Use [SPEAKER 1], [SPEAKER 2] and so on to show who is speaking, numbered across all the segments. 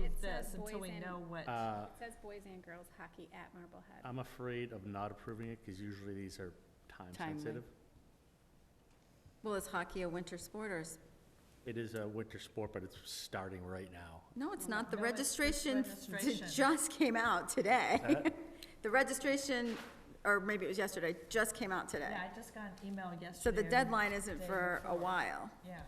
[SPEAKER 1] until we
[SPEAKER 2] Boys and-
[SPEAKER 1] know what,
[SPEAKER 3] Uh,
[SPEAKER 2] It says boys and girls hockey at Marblehead.
[SPEAKER 4] Uh.
[SPEAKER 3] I'm afraid of not approving it because usually these are time
[SPEAKER 5] Timely.
[SPEAKER 3] sensitive.
[SPEAKER 5] Well, is hockey a winter sport or is,
[SPEAKER 3] It is a winter sport, but it's starting right now.
[SPEAKER 5] no, it's not. The
[SPEAKER 1] Oh, No, it's- it's
[SPEAKER 5] registration d-
[SPEAKER 1] registration.
[SPEAKER 5] just came out today.
[SPEAKER 3] Uh,
[SPEAKER 5] The registration, or maybe it was yesterday, just came out today.
[SPEAKER 1] yeah, I just got an email yesterday.
[SPEAKER 5] So the
[SPEAKER 1] or
[SPEAKER 5] deadline isn't
[SPEAKER 1] day
[SPEAKER 5] for a
[SPEAKER 1] before.
[SPEAKER 5] while.
[SPEAKER 1] Yeah.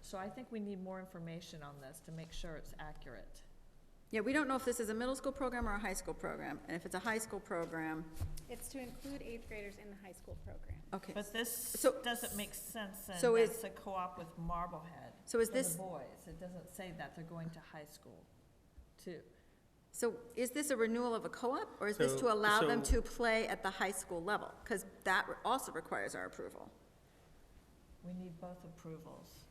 [SPEAKER 1] So I think we need more information on this to make sure it's accurate.
[SPEAKER 5] Yeah, we don't know if this is a middle school program or a high school program. And if it's a high school program,
[SPEAKER 2] It's to include eighth graders in the high school program.
[SPEAKER 5] okay.
[SPEAKER 4] But this
[SPEAKER 5] So-
[SPEAKER 4] doesn't make sense then,
[SPEAKER 5] so is-
[SPEAKER 4] that's a co-op with Marblehead.
[SPEAKER 5] So is
[SPEAKER 1] For the
[SPEAKER 5] this,
[SPEAKER 1] boys, it doesn't say that, they're going to high school too.
[SPEAKER 5] so is this a renewal of a co-op or is this
[SPEAKER 3] So-
[SPEAKER 5] to allow them
[SPEAKER 3] so-
[SPEAKER 5] to play at the high school level? Because that re- also requires our approval.
[SPEAKER 4] We need both approvals.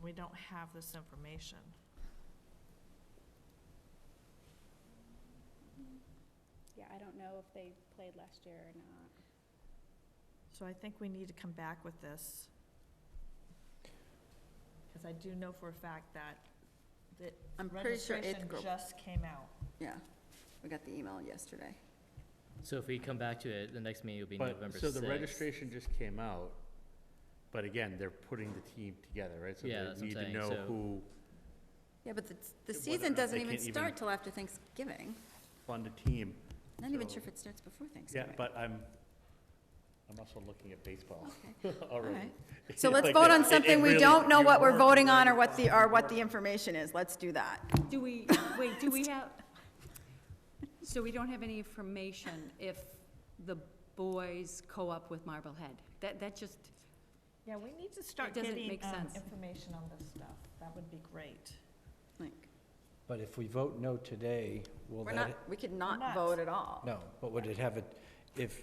[SPEAKER 4] We don't have this information.
[SPEAKER 2] Yeah, I don't know if they played last year or not.
[SPEAKER 4] So I think we need to come back with this. Because I do know for a fact that the
[SPEAKER 5] I'm pretty sure eighth
[SPEAKER 4] registration
[SPEAKER 5] grade,
[SPEAKER 4] just came out.
[SPEAKER 5] yeah. We got the email yesterday.
[SPEAKER 6] So if we come back to it, the next meeting will be
[SPEAKER 3] But,
[SPEAKER 6] November
[SPEAKER 3] so the
[SPEAKER 6] 6th.
[SPEAKER 3] registration just came out, but again, they're putting the team together, right? So
[SPEAKER 6] Yeah,
[SPEAKER 3] they
[SPEAKER 6] that's what I'm
[SPEAKER 3] need to
[SPEAKER 6] saying,
[SPEAKER 3] know
[SPEAKER 6] so-
[SPEAKER 3] who
[SPEAKER 5] Yeah, but the, the
[SPEAKER 3] Whether or
[SPEAKER 5] season
[SPEAKER 3] not
[SPEAKER 5] doesn't
[SPEAKER 3] they
[SPEAKER 5] even
[SPEAKER 3] can't even-
[SPEAKER 5] start till after Thanksgiving.
[SPEAKER 3] fund a team.
[SPEAKER 5] Not even
[SPEAKER 3] So-
[SPEAKER 5] sure if it starts before
[SPEAKER 3] Yeah,
[SPEAKER 5] Thanksgiving.
[SPEAKER 3] but I'm, I'm also looking at baseball
[SPEAKER 5] All
[SPEAKER 3] already.
[SPEAKER 5] right. So let's
[SPEAKER 3] Like,
[SPEAKER 5] vote
[SPEAKER 3] it-
[SPEAKER 5] on
[SPEAKER 3] it
[SPEAKER 5] something we
[SPEAKER 3] really-
[SPEAKER 5] don't know
[SPEAKER 3] you
[SPEAKER 5] what we're
[SPEAKER 3] work
[SPEAKER 5] voting on or
[SPEAKER 3] really
[SPEAKER 5] what the,
[SPEAKER 3] hard.
[SPEAKER 5] or what the information is. Let's do that.
[SPEAKER 7] Do we, wait, do we have, so we don't have any information if the boys co-op with Marblehead? That, that just,
[SPEAKER 4] Yeah, we need to start
[SPEAKER 7] doesn't
[SPEAKER 4] getting
[SPEAKER 7] make
[SPEAKER 4] um,
[SPEAKER 7] sense.
[SPEAKER 4] information on this stuff. That would be great.
[SPEAKER 5] Like,
[SPEAKER 8] But if we vote no today, will
[SPEAKER 5] We're not,
[SPEAKER 8] that,
[SPEAKER 5] we could
[SPEAKER 4] Not.
[SPEAKER 5] not vote at all.
[SPEAKER 8] no, but would it have a, if,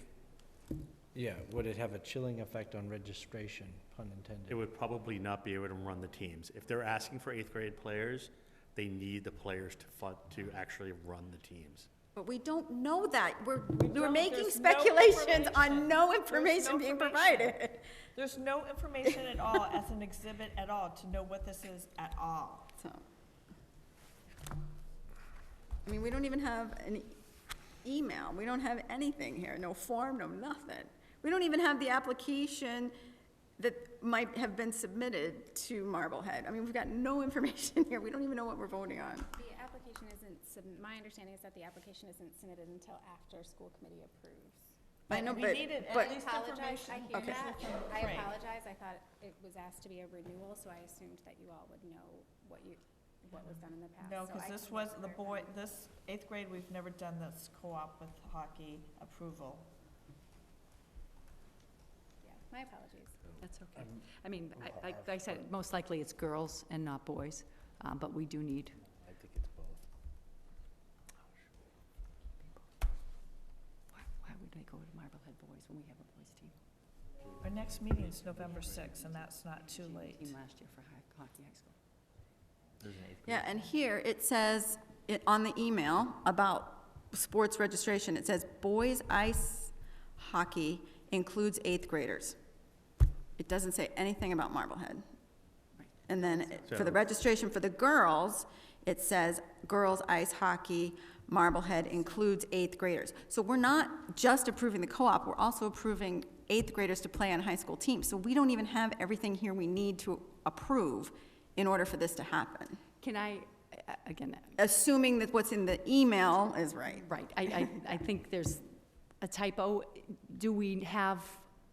[SPEAKER 8] yeah, would it have a chilling effect on registration, pun
[SPEAKER 3] It
[SPEAKER 8] intended?
[SPEAKER 3] would probably not be able to run the teams. If they're asking for eighth grade players, they need the players to fund, to actually run the teams.
[SPEAKER 5] But we don't know that. We're, we're
[SPEAKER 4] don't.
[SPEAKER 5] making
[SPEAKER 4] There's no
[SPEAKER 5] speculations on
[SPEAKER 4] information. There's
[SPEAKER 5] no
[SPEAKER 4] no
[SPEAKER 5] information being
[SPEAKER 4] information.
[SPEAKER 5] provided.
[SPEAKER 4] There's no information at all as an exhibit at all to know what this is at all.
[SPEAKER 5] So. I mean, we don't even have an e- email. We don't have anything here, no form, no nothing. We don't even have the application that might have been submitted to Marblehead. I mean, we've got no information here. We don't even know what we're voting on.
[SPEAKER 2] The application isn't, sub- my understanding is that the application isn't submitted until after school committee approves.
[SPEAKER 5] I know,
[SPEAKER 4] we
[SPEAKER 5] but,
[SPEAKER 4] needed at
[SPEAKER 5] but,
[SPEAKER 4] least-
[SPEAKER 2] Apologize, I hear
[SPEAKER 5] Okay.
[SPEAKER 2] that. I
[SPEAKER 4] Right.
[SPEAKER 2] apologize, I thought it was asked to be a renewal, so I assumed that you all would know what you, what was done in the past.
[SPEAKER 4] No,
[SPEAKER 2] so
[SPEAKER 4] because
[SPEAKER 2] I
[SPEAKER 4] this
[SPEAKER 2] can
[SPEAKER 4] was the boy,
[SPEAKER 2] clarify.
[SPEAKER 4] this eighth grade, we've never done this co-op with hockey approval.
[SPEAKER 2] Yeah, My apologies.
[SPEAKER 7] that's okay. I mean, I, I- I said, most likely it's girls and not boys, uh, but we do need,
[SPEAKER 3] I think it's both.
[SPEAKER 7] why why would they go to Marblehead boys when we have a boys team?
[SPEAKER 4] Our next meeting is November sixth, and that's not too
[SPEAKER 7] She had a
[SPEAKER 4] late.
[SPEAKER 7] Team last year for hi- hockey high school.
[SPEAKER 6] There's an eighth grade.
[SPEAKER 5] yeah, and here it says, it, on the email about sports registration, it says boys ice hockey includes eighth graders. It doesn't say anything about Marblehead. And then it- for the
[SPEAKER 3] So-
[SPEAKER 5] registration for the girls, it says girls ice hockey, Marblehead includes eighth graders. So we're not just approving the co-op, we're also approving eighth graders to play on high school teams. So we don't even have everything here we need to approve in order for this to happen,
[SPEAKER 7] Can I, uh, again, uh,
[SPEAKER 5] assuming that what's in the email is right.
[SPEAKER 7] Right, I, I, I think there's a typo. Do we have,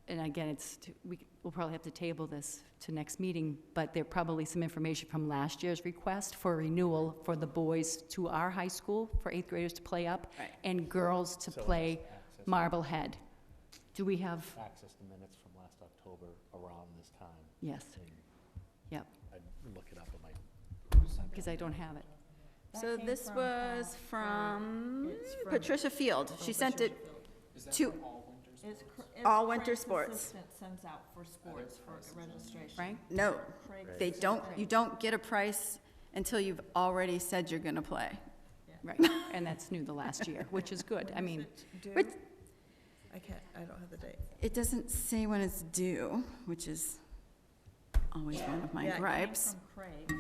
[SPEAKER 7] and again, it's, t- we, we'll probably have to table this to next meeting, but there probably some information from last year's request for renewal for the boys to our high school, for eighth graders to play up,
[SPEAKER 5] Right.
[SPEAKER 7] and girls to
[SPEAKER 3] So
[SPEAKER 7] play
[SPEAKER 3] it's access-
[SPEAKER 7] Marblehead. Do we have,
[SPEAKER 3] Access the minutes from last October around this time.
[SPEAKER 7] yes, yep,
[SPEAKER 3] I'd look it up on my
[SPEAKER 7] because I don't have it.
[SPEAKER 5] So
[SPEAKER 4] came
[SPEAKER 5] this
[SPEAKER 4] from,
[SPEAKER 5] was
[SPEAKER 4] uh,
[SPEAKER 5] from
[SPEAKER 4] it's from-
[SPEAKER 5] Patricia Field. She sent it to,
[SPEAKER 4] It's cr- it's
[SPEAKER 5] All winter
[SPEAKER 4] Frank's
[SPEAKER 5] sports.
[SPEAKER 4] assistant Sends out for sports for registration.
[SPEAKER 7] Frank?
[SPEAKER 5] no,
[SPEAKER 4] Craig's
[SPEAKER 5] they don't,
[SPEAKER 4] assistant.
[SPEAKER 5] you don't get a price until you've already said you're gonna play.
[SPEAKER 7] Right, and that's new the last year, which is good. I mean,
[SPEAKER 4] Due-
[SPEAKER 5] Which-
[SPEAKER 4] I can't, I don't have the date.
[SPEAKER 5] It doesn't say when it's due, which is always one of
[SPEAKER 4] Yeah,
[SPEAKER 5] my
[SPEAKER 4] it came
[SPEAKER 5] gripes.
[SPEAKER 4] from Craig.